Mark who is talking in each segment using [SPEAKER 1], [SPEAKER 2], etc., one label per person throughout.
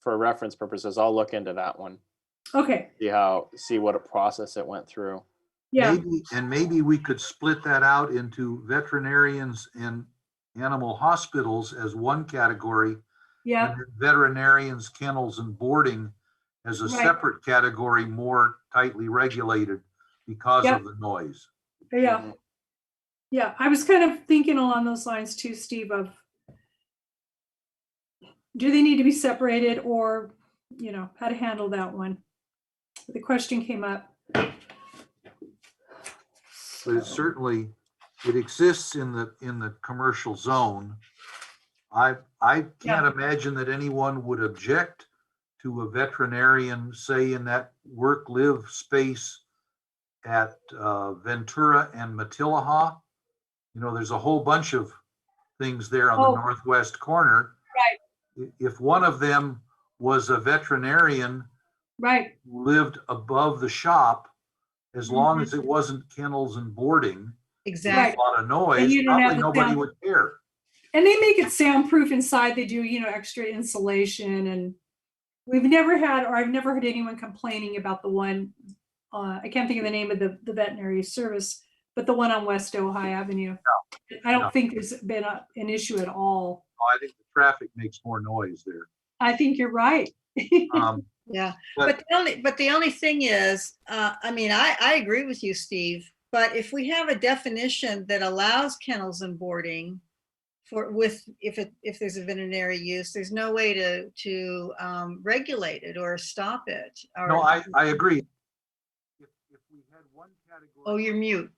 [SPEAKER 1] for reference purposes, I'll look into that one.
[SPEAKER 2] Okay,
[SPEAKER 1] See how, see what a process it went through.
[SPEAKER 2] yeah,
[SPEAKER 3] Maybe- And maybe we could split that out into veterinarians and animal hospitals as one category.
[SPEAKER 2] yeah.
[SPEAKER 3] and Veterinarians, kennels and boarding as a
[SPEAKER 2] Right.
[SPEAKER 3] separate category, more tightly regulated because
[SPEAKER 2] Yep.
[SPEAKER 3] of the noise.
[SPEAKER 2] Yeah,
[SPEAKER 1] Mhm.
[SPEAKER 2] yeah. I was kind of thinking along those lines too, Steve, of do they need to be separated or, you know, how to handle that one? The question came up.
[SPEAKER 3] But it certainly, it exists in the, in the commercial zone. I, I can't imagine that anyone would object to a veterinarian, say, in that work-live space at uh, Ventura and Matilaha. You know, there's a whole bunch of things there on
[SPEAKER 2] Oh.
[SPEAKER 3] the northwest corner. Right. If one of them was a veterinarian
[SPEAKER 2] Right,
[SPEAKER 3] lived above the shop, as long as it
[SPEAKER 2] Mhm.
[SPEAKER 3] wasn't kennels and boarding, with
[SPEAKER 2] Right.
[SPEAKER 3] a
[SPEAKER 4] Exactly.
[SPEAKER 3] lot of
[SPEAKER 2] And
[SPEAKER 3] noise,
[SPEAKER 2] you don't have
[SPEAKER 3] probably
[SPEAKER 2] the
[SPEAKER 3] nobody
[SPEAKER 2] sound.
[SPEAKER 3] would care.
[SPEAKER 2] and they make it soundproof inside. They do, you know, extra insulation and we've never had, or I've never heard anyone complaining about the one, uh, I can't think of the name of the, the veterinary service, but the one on West Ojai Avenue. I
[SPEAKER 3] no.
[SPEAKER 2] don't think there's been a- an issue at all.
[SPEAKER 3] Oh, I think the traffic makes more noise there.
[SPEAKER 2] I think you're right.
[SPEAKER 3] Um,
[SPEAKER 4] Yeah,
[SPEAKER 3] But-
[SPEAKER 4] but the only, but the only thing is, uh, I mean, I, I agree with you, Steve. But if we have a definition that allows kennels and boarding for, with, if it, if there's a veterinary use, there's no way to, to, um, regulate it or stop it. or-
[SPEAKER 3] No, I, I agree. If if we had one category
[SPEAKER 4] Oh, you're mute.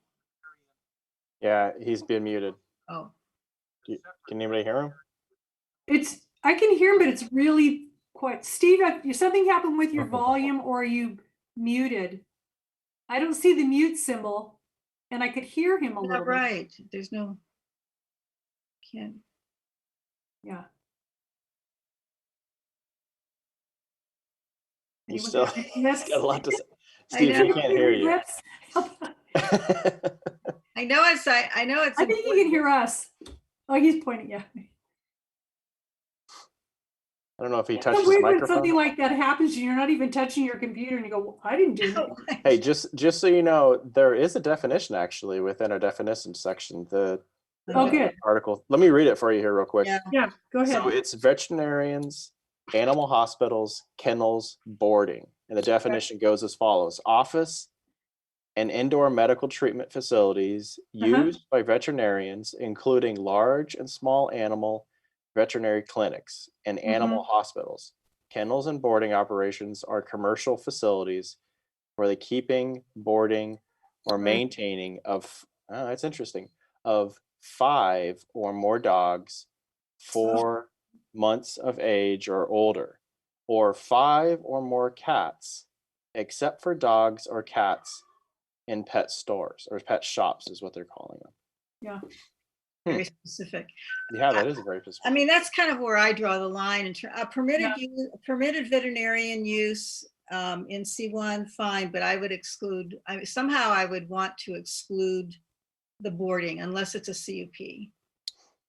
[SPEAKER 1] Yeah, he's been muted.
[SPEAKER 4] Oh,
[SPEAKER 1] Can anybody hear him?
[SPEAKER 2] It's, I can hear him, but it's really quite, Steve, I- you- something happened with your volume or you muted. I don't see the mute symbol and I could hear him a
[SPEAKER 4] yeah,
[SPEAKER 2] little bit.
[SPEAKER 4] right. There's no. Can't,
[SPEAKER 2] Yeah.
[SPEAKER 1] He's still,
[SPEAKER 2] Anyone got any
[SPEAKER 1] he's got a lot to say.
[SPEAKER 4] I
[SPEAKER 1] Steve, he
[SPEAKER 4] know.
[SPEAKER 1] can't hear you.
[SPEAKER 2] Yes.
[SPEAKER 4] I know it's, I, I know it's.
[SPEAKER 2] I think he can hear us. Oh, he's pointing, yeah.
[SPEAKER 1] I don't know if he
[SPEAKER 2] It's
[SPEAKER 1] touched
[SPEAKER 2] so
[SPEAKER 1] his
[SPEAKER 2] weird when something
[SPEAKER 1] microphone.
[SPEAKER 2] like that happens and you're not even touching your computer and you go, "Well, I didn't do
[SPEAKER 4] Oh.
[SPEAKER 2] anything.
[SPEAKER 4] important.
[SPEAKER 1] Hey, just, just so you know, there is a definition actually within our definition section, the
[SPEAKER 2] Oh,
[SPEAKER 1] uh,
[SPEAKER 2] good.
[SPEAKER 1] article. Let me read it for you here real quick.
[SPEAKER 4] Yeah.
[SPEAKER 2] Yeah, go ahead.
[SPEAKER 1] So it's veterinarians, animal hospitals, kennels, boarding. And the definition goes as follows office and indoor medical treatment facilities
[SPEAKER 2] Uh-huh.
[SPEAKER 1] used by veterinarians, including large and small animal veterinary clinics and
[SPEAKER 2] Mm-hmm.
[SPEAKER 1] animal hospitals. Kennels and boarding operations are commercial facilities for the keeping, boarding,
[SPEAKER 4] Mm-hmm.
[SPEAKER 1] or maintaining of, oh, that's interesting, of five or more dogs
[SPEAKER 4] Uh-huh.
[SPEAKER 1] four months of age or older, or five or more cats, except for dogs or cats in pet stores or pet shops is what they're calling them.
[SPEAKER 4] Very specific.
[SPEAKER 1] Yeah, that is a very specific.
[SPEAKER 4] I mean, that's kind of where I draw the line in ter- a permitted,
[SPEAKER 2] Yeah.
[SPEAKER 4] u- permitted veterinarian use um, in C1, fine, but I would exclude, I, somehow I would want to exclude the boarding unless it's a CUP,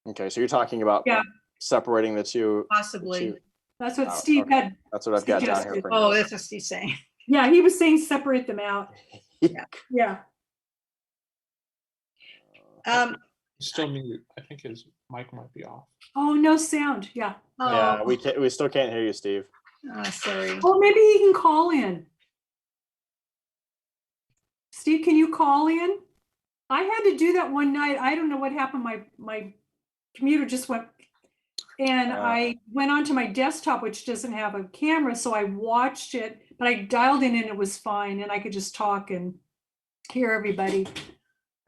[SPEAKER 1] okay, so you're talking about
[SPEAKER 2] Yeah.
[SPEAKER 1] separating the two.
[SPEAKER 4] possibly.
[SPEAKER 1] Two.
[SPEAKER 2] That's what
[SPEAKER 1] Oh,
[SPEAKER 2] Steve
[SPEAKER 1] okay.
[SPEAKER 2] had
[SPEAKER 1] That's what I've got down here.
[SPEAKER 2] Suggested.
[SPEAKER 1] For
[SPEAKER 4] Oh,
[SPEAKER 1] you.
[SPEAKER 4] that's what Steve's saying.
[SPEAKER 2] Yeah, he was saying separate them out.
[SPEAKER 1] Yeah.
[SPEAKER 2] Yeah,
[SPEAKER 4] Um,
[SPEAKER 5] He's still muted. I think his mic might be off.
[SPEAKER 2] oh, no sound, yeah.
[SPEAKER 1] yeah,
[SPEAKER 4] oh,
[SPEAKER 1] we can't. We still can't hear you, Steve.
[SPEAKER 4] oh, sorry.
[SPEAKER 2] Oh, maybe he can call in. Steve, can you call in? I had to do that one night. I don't know what happened. My, my computer just went. And
[SPEAKER 1] Ah.
[SPEAKER 2] I went onto my desktop, which doesn't have a camera, so I watched it, but I dialed in and it was fine and I could just talk and hear everybody.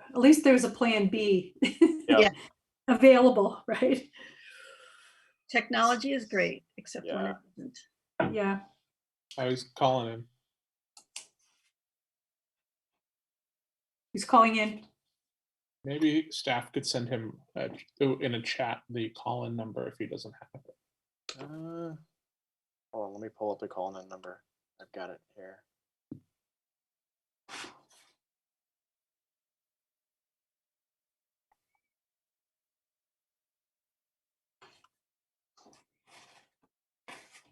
[SPEAKER 2] At least there's a plan B.
[SPEAKER 4] Yeah.
[SPEAKER 2] Available, right?
[SPEAKER 4] Technology is great, except when it isn't.
[SPEAKER 2] Yeah.
[SPEAKER 5] I was calling him.
[SPEAKER 2] He's calling in.
[SPEAKER 5] Maybe staff could send him uh, in a chat the call-in number if he doesn't have it.
[SPEAKER 1] Uh, hold on, let me pull up the call in number. I've got it here.